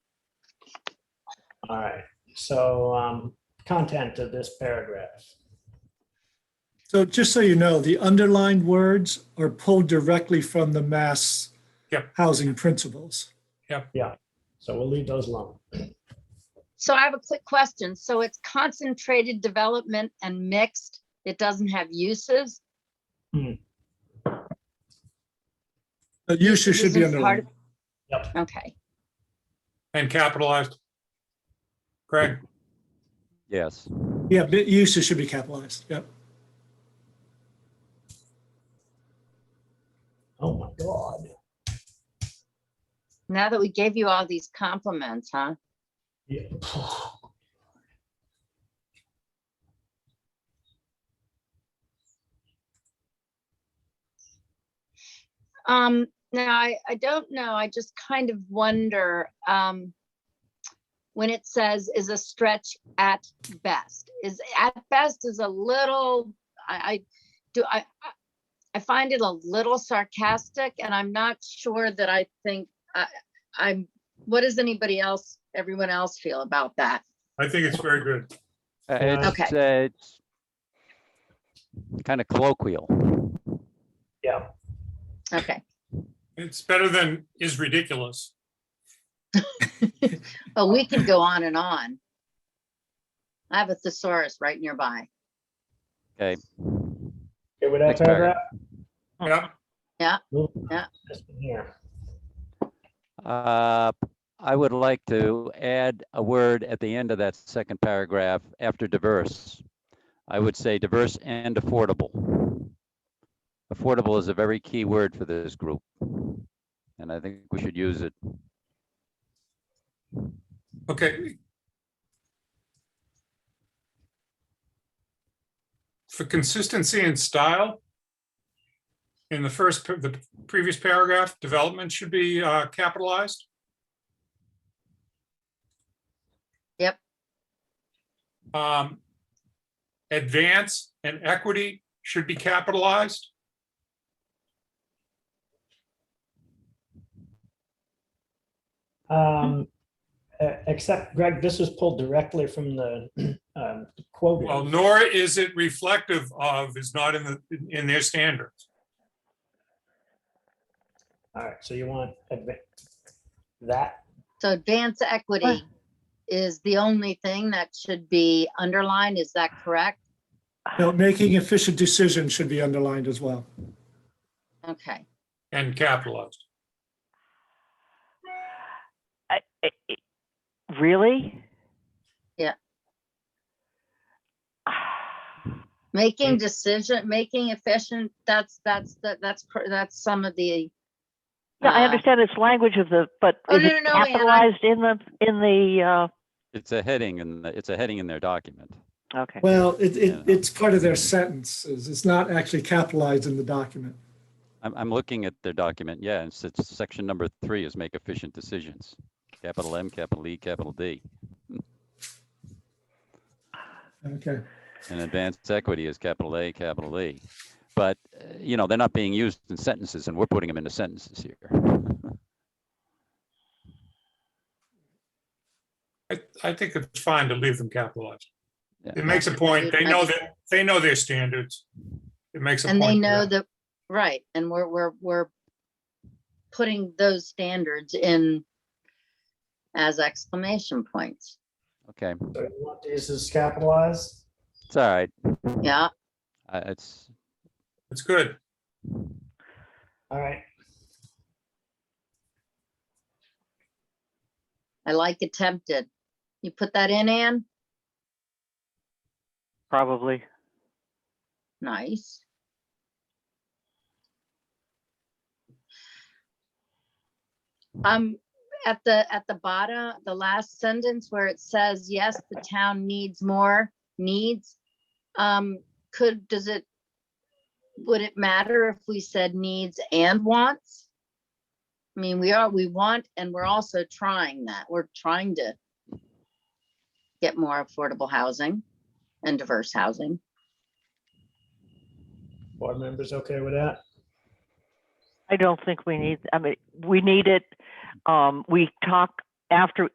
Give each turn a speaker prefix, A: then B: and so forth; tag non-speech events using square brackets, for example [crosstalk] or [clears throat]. A: All right, so um, content of this paragraph.
B: So just so you know, the underlined words are pulled directly from the mass
C: Yep.
B: housing principles.
A: So we'll leave those alone.
D: So I have a quick question. So it's concentrated development and mixed. It doesn't have uses.
B: The uses should be
D: Uses part
B: underlined.
D: of- Okay,
C: and capitalized. Greg,
E: Yes,
B: Yeah, but uses should be capitalized. Yep.
A: Oh my God.
D: now that we gave you all these compliments, huh?
A: Yeah.
D: Um, now, I, I don't know. I just kind of wonder, um, when it says is a stretch at best, is at best is a little, I, I do, I, I- I find it a little sarcastic and I'm not sure that I think, I, I'm, what does anybody else, everyone else feel about that?
C: I think it's very good.
E: Uh, it's, uh, it's kind of colloquial.
A: Yeah,
D: Okay.
C: It's better than is ridiculous.
D: Oh, we can go on and on. I have a thesaurus right nearby.
E: Okay.
A: okay, with that
E: Next paragraph.
A: paragraph?
C: Yeah,
A: Move
D: Yeah.
A: on. Just from Here,
E: Uh, I would like to add a word at the end of that second paragraph after diverse. I would say diverse and affordable. Affordable is a very key word for this group. And I think we should use it.
C: okay. For consistency and style. In the first, pa- the previous paragraph, development should be uh, capitalized.
D: Yep.
C: Um, Advance and equity should be capitalized.
A: um, e- except Greg, this was pulled directly from the [clears throat] um, quote.
C: Well, nor is it reflective of is not in the, in their standards.
A: All right, so you want adva- that,
D: So advance equity is the only thing that should be underlined, is that correct?
B: Now, making efficient decisions should be underlined as well.
D: Okay,
C: And capitalized.
F: I- I- I- Really?
D: Yeah.
F: Ah,
D: making decision, making efficient, that's, that's, that that's, cor- that's some of the.
F: No, I
D: uh,
F: understand it's language of the, but
D: Oh,
F: is
D: no,
F: it
D: no, no, Ann, I-
F: capitalized in the, in the,
E: It's a heading in, the- it's a heading in their document.
F: uh, okay.
B: Well, it,
E: Yeah.
B: it, it's part of their sentences. It's not actually capitalized in the document.
E: I'm, I'm looking at their document. Yeah, it's, it's section number three is make efficient decisions. Capital M, capital E, capital D.
B: Okay.
E: And advanced equity is capital A, capital E. But, uh, you know, they're not being used in sentences and we're putting them into sentences here.
C: I, I think it's fine to leave them capitalized.
E: Yeah.
C: It makes a point. They know that, they know their standards. It makes a point.
D: And they
C: there.
D: know that, right, and we're, we're, we're putting those standards in as exclamation points.
E: Okay,
A: so you want these as capitalized?
E: it's all right.
D: Yeah,
E: I- It's,
C: It's good.
A: All right,
D: I like attempted. You put that in, Ann?
F: Probably.
D: Nice. Um, at the, at the bottom, the last sentence where it says, yes, the town needs more needs. Um, could, does it, would it matter if we said needs and wants? I mean, we are, we want, and we're also trying that. We're trying to get more affordable housing and diverse housing.
A: board members okay with that?
F: I don't think we need, I mean, we need it. Um, we talk after